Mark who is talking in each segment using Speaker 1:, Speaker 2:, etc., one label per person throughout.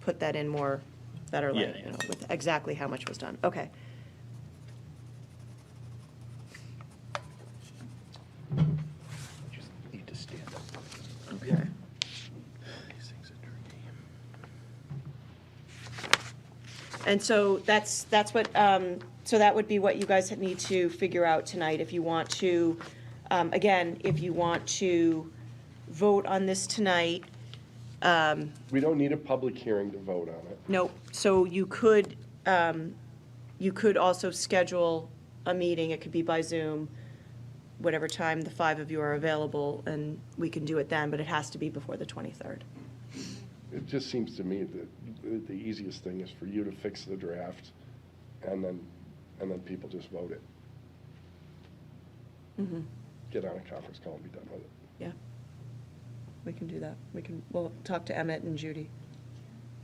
Speaker 1: put that in more, better
Speaker 2: Yeah,
Speaker 1: light, you
Speaker 2: yeah.
Speaker 1: know, with exactly how much was done. Okay.
Speaker 3: Just need to stand up.
Speaker 1: Okay.
Speaker 3: These things are tricky.
Speaker 1: And so that's, that's what, um, so that would be what you guys need to figure out tonight if you want to, um, again, if you want to vote on this tonight.
Speaker 3: We don't need a public hearing to vote on it.
Speaker 1: Nope, so you could, um, you could also schedule a meeting, it could be by Zoom, whatever time the five of you are available, and we can do it then, but it has to be before the 23rd.
Speaker 3: It just seems to me that the- the easiest thing is for you to fix the draft, and then, and then people just vote it. Get on a conference call and be done with it.
Speaker 1: Yeah. We can do that, we can, we'll talk to Emmett and Judy.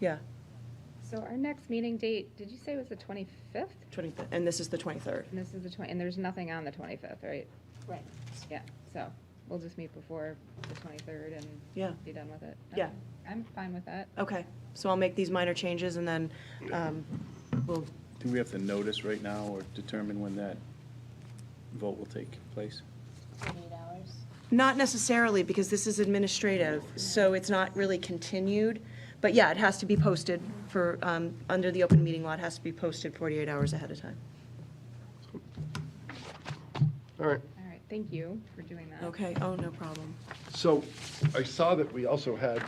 Speaker 1: Yeah,
Speaker 4: So our next meeting date, did you say was the twenty-fifth?
Speaker 1: 23rd, and this is the 23rd.
Speaker 4: And this is the twenty, and there's nothing on the twenty-fifth, right?
Speaker 5: Right.
Speaker 4: Yeah, so we'll just meet before the twenty-third and
Speaker 1: Yeah.
Speaker 4: be done with it.
Speaker 1: Yeah.
Speaker 4: I'm fine with that.
Speaker 1: Okay, so I'll make these minor changes and then, um, we'll,
Speaker 2: Do we have to notice right now or determine when that vote will take place?
Speaker 5: Eight hours.
Speaker 1: not necessarily, because this is administrative, so it's not really continued. But yeah, it has to be posted for, um, under the open meeting law, it has to be posted 48 hours ahead of time.
Speaker 3: All right,
Speaker 4: All right, thank you for doing that.
Speaker 1: Okay, oh, no problem.
Speaker 3: so I saw that we also had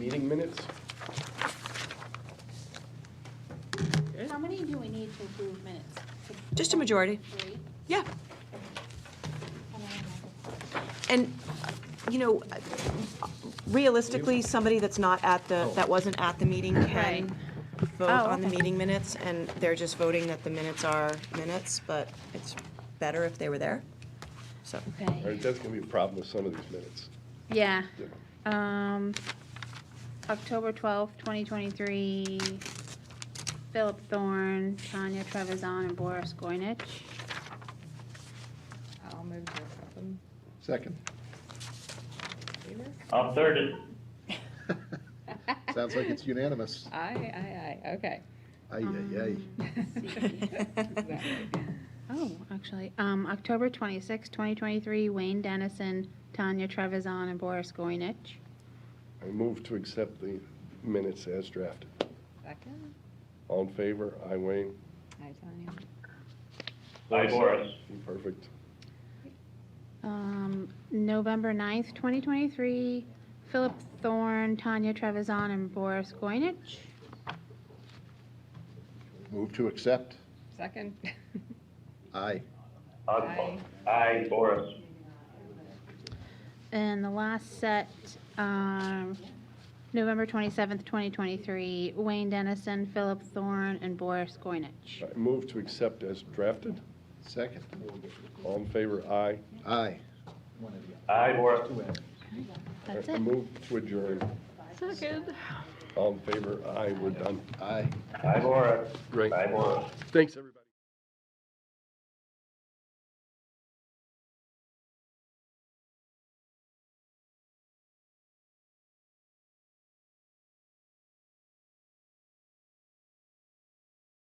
Speaker 3: meeting minutes.
Speaker 5: How many do we need to approve minutes?
Speaker 1: Just a majority.
Speaker 5: Three?
Speaker 1: Yeah,
Speaker 5: And then another-
Speaker 1: and, you know, realistically, somebody that's not at the, that wasn't at the meeting can
Speaker 4: Right.
Speaker 1: vote
Speaker 4: Oh,
Speaker 1: on the
Speaker 4: okay.
Speaker 1: meeting minutes, and they're just voting that the minutes are minutes, but it's better if they were there, so.
Speaker 3: All right, that's going to be a problem with some of these minutes.
Speaker 5: Yeah,
Speaker 3: you know.
Speaker 5: um, October twelfth, twenty twenty-three, Philip Thorne, Tanya Trevisan, and Boris Goynich.
Speaker 4: I'll move to accept them.
Speaker 6: Second.
Speaker 4: Favor?
Speaker 7: I'll third it.
Speaker 6: Sounds like it's unanimous.
Speaker 4: Aye, aye, aye, okay.
Speaker 6: Aye, aye, aye.
Speaker 4: Exactly.
Speaker 5: Um, Oh, actually, um, October twenty-sixth, twenty twenty-three, Wayne Dennison, Tanya Trevisan, and Boris Goynich.
Speaker 3: I move to accept the minutes as drafted.
Speaker 4: Second,
Speaker 3: All in favor? I, Wayne.
Speaker 4: I tell you.
Speaker 7: Aye, Boris.
Speaker 3: Perfect.
Speaker 5: Um, November 9th, 2023, Philip Thorne, Tanya Trevisan, and Boris Goynich.
Speaker 6: Move to accept.
Speaker 4: Second,
Speaker 6: Aye.
Speaker 7: Aye. Aye, Boris.
Speaker 5: And the last set, um, November 27th, 2023, Wayne Dennison, Philip Thorne, and Boris Goynich.
Speaker 3: I move to accept as drafted.
Speaker 6: Second.
Speaker 3: All in favor? Aye.
Speaker 6: Aye.
Speaker 7: Aye, Boris.
Speaker 5: That's
Speaker 3: I
Speaker 5: it.
Speaker 3: Move to adjourn.
Speaker 5: Second.
Speaker 3: All in favor? Aye, we're done.
Speaker 6: Aye.
Speaker 7: Aye, Boris.
Speaker 3: Great.
Speaker 7: Aye, Boris.
Speaker 3: Thanks, everybody.